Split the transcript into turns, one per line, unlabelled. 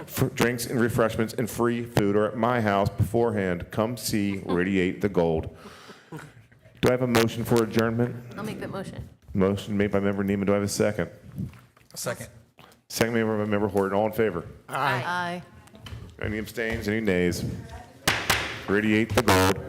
f- drinks and refreshments and free food are at my house beforehand. Come see Radiate the Gold. Do I have a motion for adjournment?
I'll make that motion.
Motion made by member Neiman. Do I have a second?
Second.
Second made by member Horton. All in favor?
Aye. Aye.
Any abstains? Any nays? Radiate the Gold.